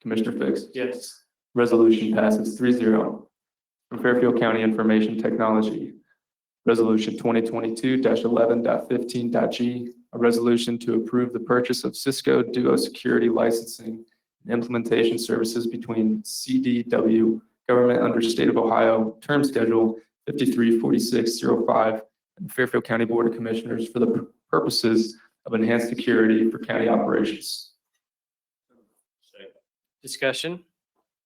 Commissioner Fix. Yes. Resolution passes 3-0 From Fairfield County Information Technology. Resolution twenty twenty-two 1115g a resolution to approve the purchase of Cisco Duo Security Licensing and Implementation Services between CDW Government under State of Ohio, term schedule fifty-three forty-six zero five, and Fairfield County Board of Commissioners for the purposes of enhanced security for county operations. Discussion?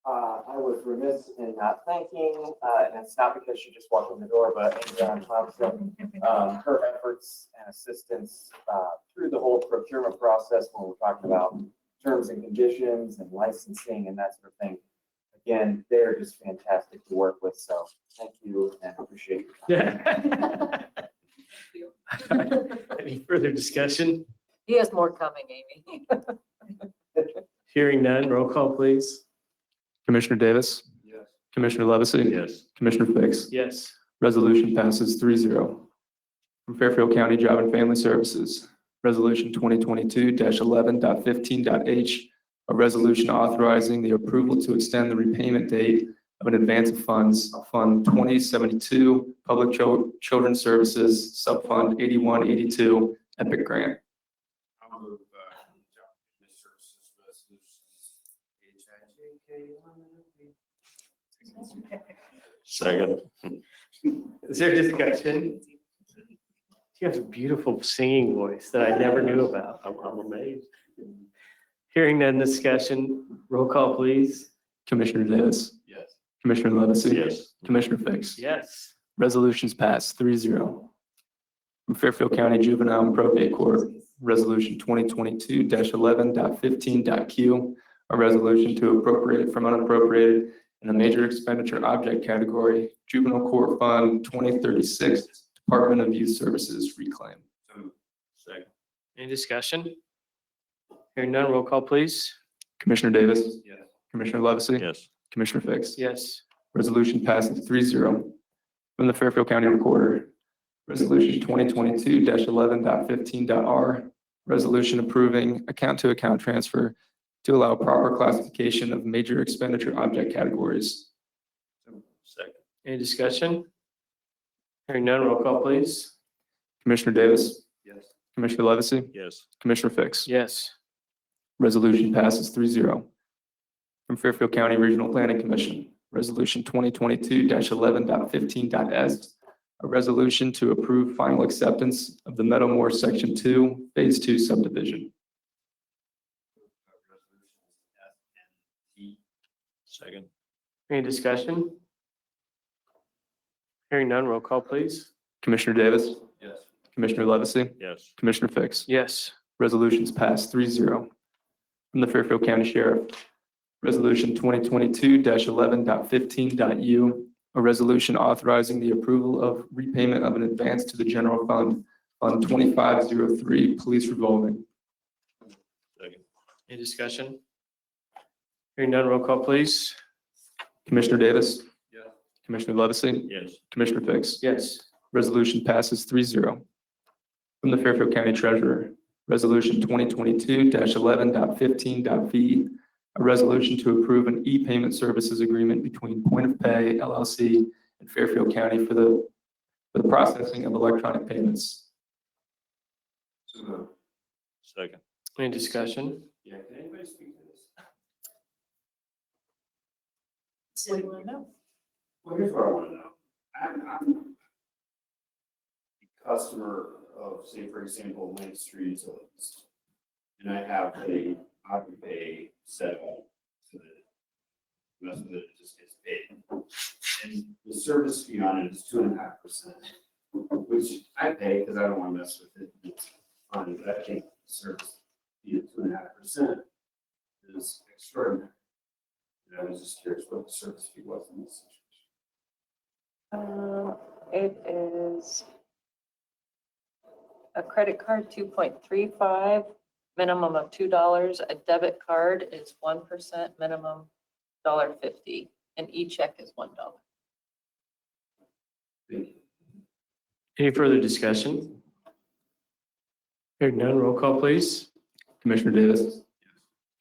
Uh, I was remiss in not thanking, uh, and it's not because she just walked in the door, but Adriana Thompson, um, her efforts and assistance, uh, through the whole procurement process when we're talking about terms and conditions and licensing and that sort of thing. Again, they're just fantastic to work with, so thank you and appreciate your time. Any further discussion? He has more coming, Amy. Hearing none, roll call please. Commissioner Davis? Yes. Commissioner Levesey? Yes. Commissioner Fix? Yes. Resolution passes 3-0 From Fairfield County Job and Family Services, Resolution 2022-11.15.h, a resolution authorizing the approval to extend the repayment date of an advance of funds, Fund 2072, Public Chil- Children's Services, Subfund 8182, Epic Grant. I'll move, uh, job and services resolutions, H I J K L M N O P. Second. Is there discussion? You have a beautiful singing voice that I never knew about. I'm I'm amazed. Hearing none, discussion, roll call please. Commissioner Davis? Yes. Commissioner Levesey? Yes. Commissioner Fix? Yes. Resolutions passed 3-0 From Fairfield County Juvenile and Probate Court, Resolution 2022-11.15.q, a resolution to appropriate from unappropriated in the major expenditure object category, Juvenile Court Fund 2036, Department of Youth Services reclaim. So moved. Second. Any discussion? Hearing none, roll call please. Commissioner Davis? Yes. Commissioner Levesey? Yes. Commissioner Fix? Yes. Resolution passes 3-0 From the Fairfield County Recorder, Resolution 2022-11.15.r, resolution approving account-to-account transfer to allow proper classification of major expenditure object categories. Second. Any discussion? Hearing none, roll call please. Commissioner Davis, Yes. Commissioner Levesey, Yes. Commissioner Fix. Yes. Resolution passes 3-0 From Fairfield County Regional Planning Commission, Resolution 2022-11.15.s, a resolution to approve final acceptance of the Meadowmore Section 2, Phase 2 subdivision. Second. Any discussion? Hearing none, roll call please. Commissioner Davis, Yes. Commissioner Levesey, Yes. Commissioner Fix. Yes. Resolutions passed 3-0 From the Fairfield County Sheriff, Resolution 2022-11.15.u, a resolution authorizing the approval of repayment of an advance to the general fund on 2503 Police Revolving. Second. Any discussion? Hearing none, roll call please. Commissioner Davis? Yeah. Commissioner Levesey? Yes. Commissioner Fix? Yes. Resolution passes 3-0 From the Fairfield County Treasurer, Resolution 2022-11.15.v, a resolution to approve an e-payment services agreement between Point of Pay LLC and Fairfield County for the, for the processing of electronic payments. So moved. Second. Any discussion? Yeah, can anybody speak to this? Well, here's what I want to know. I'm, I'm a customer of, say, for example, Lake Street Utilities. And I have a, I would pay set up so that the rest of it just gets paid. And the service fee on it is two and a half percent, which I pay because I don't want to mess with it. It's fine, but I think the service fee of two and a half percent is extraordinary. And I was just curious what the service fee was in this situation. Um, it is a credit card, two point three five, minimum of two dollars. A debit card is one percent, minimum dollar fifty, and e-check is one dollar. Any further discussion? Hearing none, roll call please. Commissioner Davis?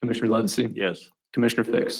Commissioner Levesey? Yes. Commissioner Fix?